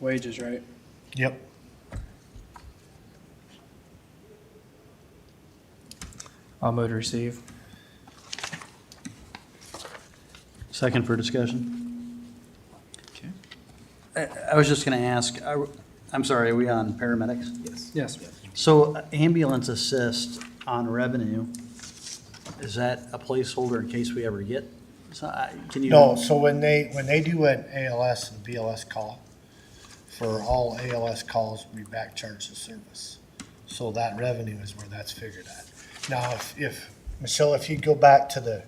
wages, right? Yep. I'll move to receive. Second for discussion. I I was just going to ask, I- I'm sorry, are we on paramedics? Yes. So uh, ambulance assist on revenue, is that a placeholder in case we ever get? So I- Can you? No, so when they, when they do an ALS and BLS call, for all ALS calls, we back charge the service. So that revenue is where that's figured at. Now, if, if, Michelle, if you go back to the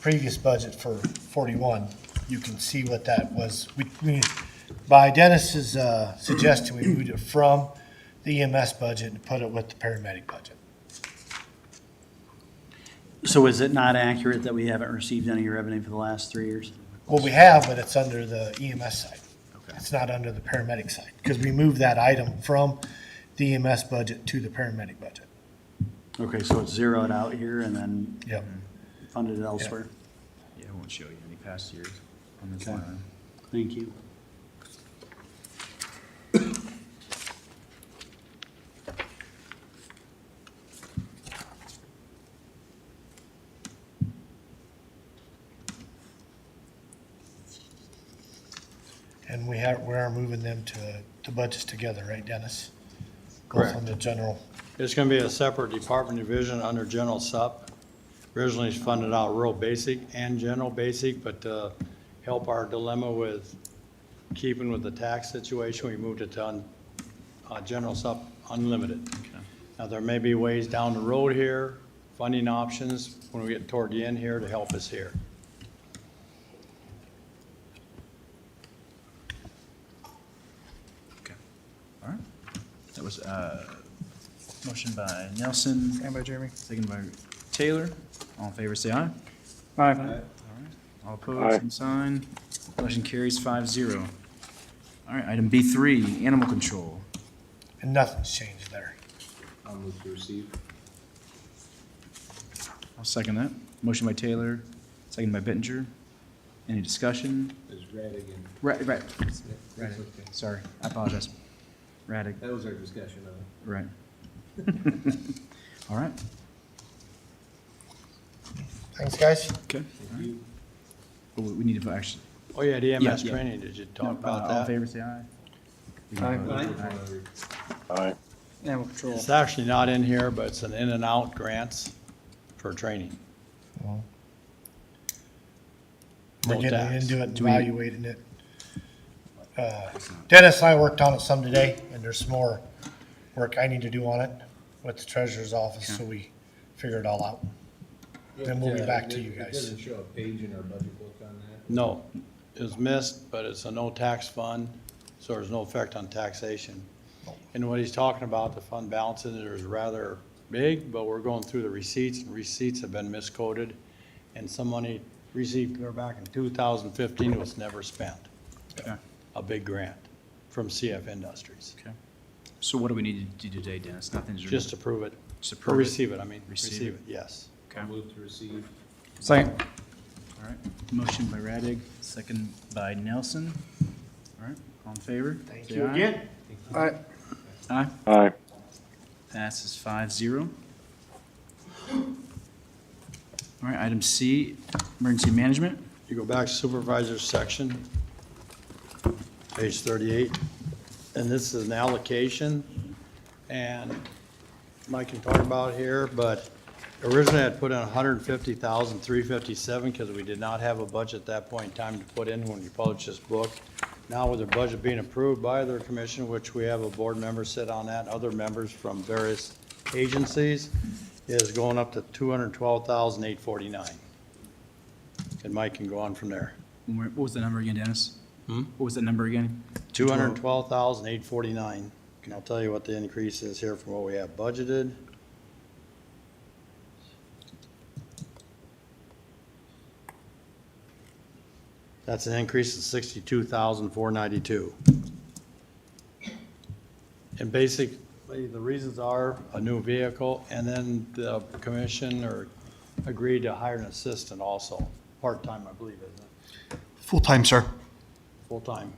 previous budget for forty-one, you can see what that was. We, we, by Dennis's, uh, suggestion, we moved it from the EMS budget and put it with the paramedic budget. So is it not accurate that we haven't received any revenue for the last three years? Well, we have, but it's under the EMS side. Okay. It's not under the paramedic side, because we moved that item from the EMS budget to the paramedic budget. Okay, so it's zeroed out here and then Yep. funded elsewhere? Yeah, it won't show you any past years on this Okay. line. Thank you. And we have, we are moving them to, the budgets together, right, Dennis? Both on the general, It's going to be a separate department division under general sup. Originally it's funded out rural basic and general basic, but to help our dilemma with keeping with the tax situation, we moved it to un- uh, general sup unlimited. Now, there may be ways down the road here, funding options, when we get toward the end here to help us here. Okay, all right. That was uh motion by Nelson, Stand by, Jeremy. second by Taylor. All in favor, say aye. Aye. All opposed, same sign. Motion carries five zero. All right, item B three, animal control. and nothing's changed there. I'll move to receive. I'll second that. Motion by Taylor, second by Bittenger. Any discussion? It's Radigan. Right, right, That's okay. sorry, I apologize. Radig, That was our discussion of it. right. All right. Thanks, guys. Okay. We we need to vote, actually. Oh, yeah, the EMS Yeah, yeah. training, did you No, talk about uh, that? All in favor, say aye. We can Aye. vote. Animal control. It's actually not in here, but it's an in and out grants for training. We're No getting tax. into it, and Do we- evaluating it. Uh, Dennis and I worked on it some today, and there's some more work I need to do on it with the treasurer's office, so we figure it all out. Then we'll be Yeah, back it- to you It guys. doesn't show a page in our budget book on that. No, it was missed, but it's a no-tax fund, so there's no effect on taxation. And what he's talking about, the fund balances is rather big, but we're going through the receipts, and receipts have been miscoded, and some money received there back in 2015 was never spent. Okay. A big grant from CF Industries, So what do we need to do today, Dennis? Nothing's. just to prove it, Just or approve it. receive it, I mean, Receive receive it. it, yes. Okay. Move to receive. Second. All right. Motion by Radig, second by Nelson. All right, all in favor? Thank you again. Aye. Aye. Aye. Passes five zero. All right, item C, emergency management. You go back to supervisor's section, page 38, and this is an allocation, and Mike can talk about it here, but originally I'd put in 150,357 because we did not have a budget at that point in time to put in when we published this book. Now with the budget being approved by their commission, which we have a board member sit on that, other members from various agencies, is going up to 212,849. And Mike can go on from there. When we're- What was the number again, Dennis? Hmm? What was the number again? Two hundred and twelve thousand, eight forty-nine. And I'll tell you what the increase is here from what we have budgeted. That's an increase of sixty-two thousand, four ninety-two. And basically, the reasons are a new vehicle, and then the commission or agreed to hire an assistant also, part-time, I believe, isn't it? Full-time, sir. Full-time.